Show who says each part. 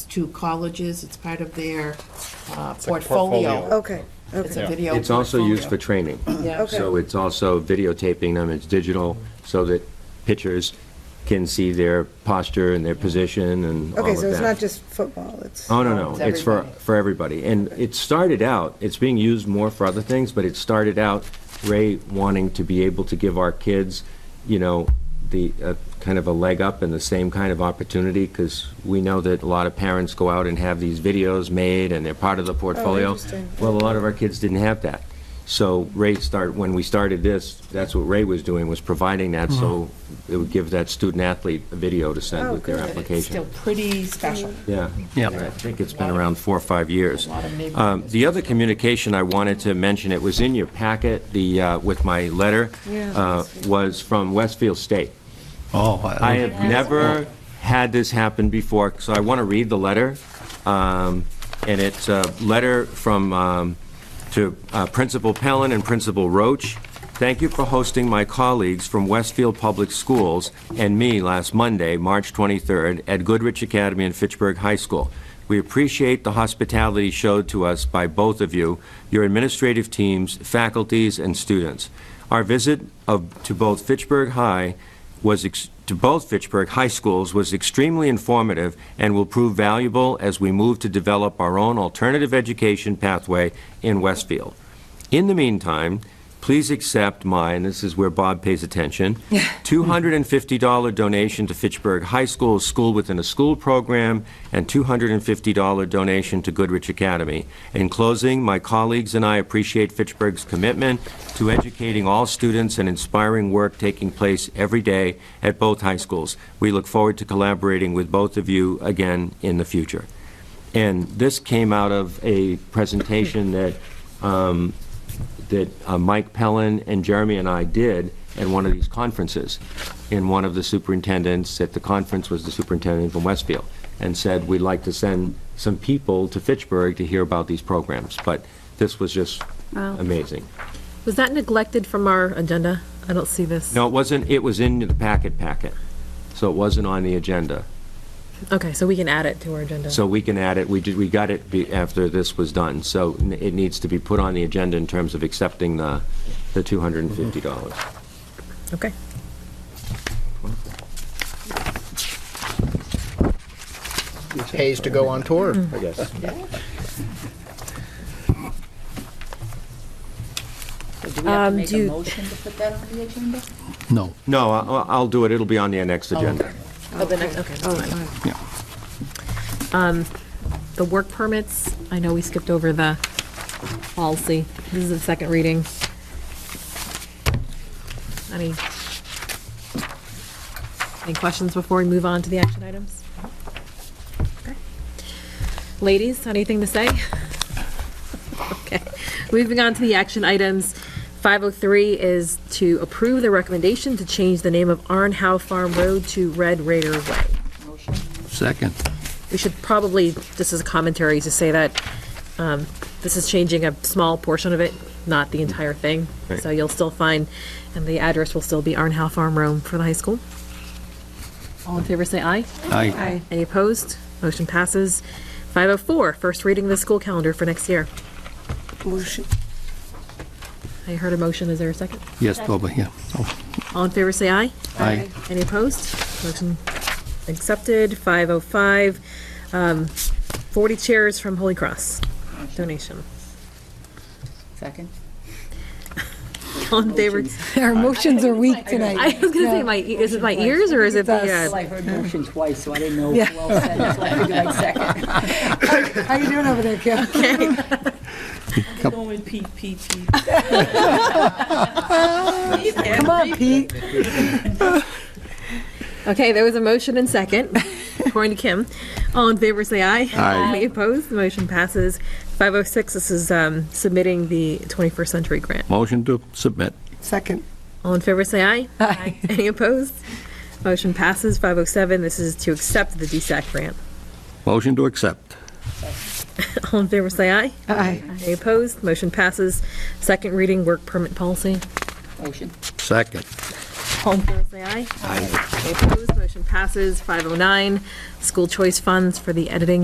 Speaker 1: to colleges, it's part of their uh,
Speaker 2: like a
Speaker 1: portfolio.
Speaker 2: portfolio.
Speaker 3: Okay,
Speaker 1: It's a
Speaker 3: okay,
Speaker 1: video.
Speaker 4: It's also used for
Speaker 1: portfolio.
Speaker 4: training.
Speaker 1: Yeah.
Speaker 3: Okay.
Speaker 4: So it's also videotaping them, it's digital, so that pitchers can see their posture and their position and all
Speaker 3: okay,
Speaker 4: of
Speaker 3: so it's
Speaker 4: that.
Speaker 3: not just football, it's,
Speaker 1: Uh,
Speaker 4: Oh, no, no,
Speaker 1: It's
Speaker 4: it's for,
Speaker 1: everybody.
Speaker 4: for everybody. And it started out, it's being used more for other things, but it started out Ray wanting to be able to give our kids, you know, the, uh, kind of a leg up and the same kind of opportunity, because we know that a lot of parents go out and have these videos made and they're part of the portfolio.
Speaker 3: interesting.
Speaker 4: Well, a lot of our kids didn't have that. So Ray started, when we started this, that's what Ray was doing, was providing that, so it would give that student athlete a video to send
Speaker 3: Oh,
Speaker 4: with their
Speaker 3: good.
Speaker 1: But it's still
Speaker 4: application.
Speaker 1: pretty special.
Speaker 4: Yeah.
Speaker 5: Yep.
Speaker 4: I think it's been around four or five years.
Speaker 1: A lot of neighborhood
Speaker 4: Um, The other communication I wanted to mention, it was in your packet, the, uh, with my letter,
Speaker 3: Yeah.
Speaker 4: uh, was from Westfield State.
Speaker 5: Oh,
Speaker 4: I
Speaker 5: I-
Speaker 4: have never had this happen before, so I want to read the letter. Um, And it's a letter from, um, to uh, Principal Pellin and Principal Roach. Thank you for hosting my colleagues from Westfield Public Schools and me last Monday, March 23rd, at Goodrich Academy and Fitchburg High School. We appreciate the hospitality showed to us by both of you, your administrative teams, faculties, and students. Our visit of, to both Fitchburg High was, ex- to both Fitchburg High Schools was extremely informative and will prove valuable as we move to develop our own alternative education pathway in Westfield. In the meantime, please accept my, and this is where Bob pays attention, $250 donation to Fitchburg High School's School Within a School program and $250 donation to Goodrich Academy. In closing, my colleagues and I appreciate Fitchburg's commitment to educating all students and inspiring work taking place every day at both high schools. We look forward to collaborating with both of you again in the future. And this came out of a presentation that, um, that uh, Mike Pellin and Jeremy and I did at one of these conferences. And one of the superintendents at the conference was the superintendent from Westfield, and said, we'd like to send some people to Fitchburg to hear about these programs. But this was just amazing.
Speaker 6: Was that neglected from our agenda? I don't see this.
Speaker 4: No, it wasn't, it was in the packet packet, so it wasn't on the agenda.
Speaker 6: Okay, so we can add it to our agenda.
Speaker 4: So we can add it, we did, we got it be- after this was done, so n- it needs to be put on the agenda in terms of accepting the, the $250.
Speaker 6: Okay.
Speaker 2: Pays to go on tour.
Speaker 4: I guess.
Speaker 7: So do we have
Speaker 6: Um,
Speaker 7: to make
Speaker 6: do
Speaker 7: a
Speaker 6: you-
Speaker 7: motion to put that on the agenda?
Speaker 5: no.
Speaker 4: No, I- I'll, I'll do it, it'll be on the next agenda.
Speaker 6: Oh, the next, okay, that's fine.
Speaker 5: Yeah.
Speaker 6: The work permits, I know we skipped over the policy. This is the second reading. Any, any questions before we move on to the action items? Okay. Ladies, anything to say? Okay, moving on to the action items. 503 is to approve the recommendation to change the name of Arn Howe Farm Road to Red Raider Way.
Speaker 7: Motion.
Speaker 5: Second.
Speaker 6: We should probably, this is a commentary to say that um, this is changing a small portion of it, not the entire thing.
Speaker 4: Right.
Speaker 6: So you'll still find, and the address will still be Arnhow Farm Road for the high school. All in favor, say aye.
Speaker 5: I
Speaker 6: Any opposed? Motion passes. 504, first reading of the school calendar for next year.
Speaker 3: motion,
Speaker 6: I heard a motion, is there a second?
Speaker 5: Yes, Boba, yeah. Oh,
Speaker 6: All in favor, say aye.
Speaker 5: Aye.
Speaker 6: Any opposed? Motion accepted. 505, um, 40 chairs from Holy Cross donation.
Speaker 7: Second?
Speaker 6: All in favor?
Speaker 8: Our motions are weak
Speaker 6: I
Speaker 8: tonight.
Speaker 6: was gonna say, my, e- is it my ears or is it the,
Speaker 8: It's
Speaker 6: uh,
Speaker 7: Well, I heard motion twice, so I didn't know who else said it, so I figured I'd second.
Speaker 8: How you doing over there, Kim?
Speaker 9: Going Pete, Pete, Pete.
Speaker 8: Come on, Pete.
Speaker 6: okay, there was a motion and second, according to Kim. All in favor, say aye.
Speaker 5: Aye.
Speaker 6: Any opposed? The motion passes. 506, this is um, submitting the 21st Century Grant.
Speaker 5: Motion to submit.
Speaker 8: Second.
Speaker 6: All in favor, say aye.
Speaker 8: Aye.
Speaker 6: Any opposed? Motion passes. 507, this is to accept the DSAC grant.
Speaker 5: Motion to accept.
Speaker 6: All in favor, say aye.
Speaker 8: Aye.
Speaker 6: Any opposed? Motion passes. Second reading, work permit policy.
Speaker 7: Motion.
Speaker 5: Second.
Speaker 6: All in favor, say oh aye. Aye. Any opposed? Motion passes. 509, school choice funds for the editing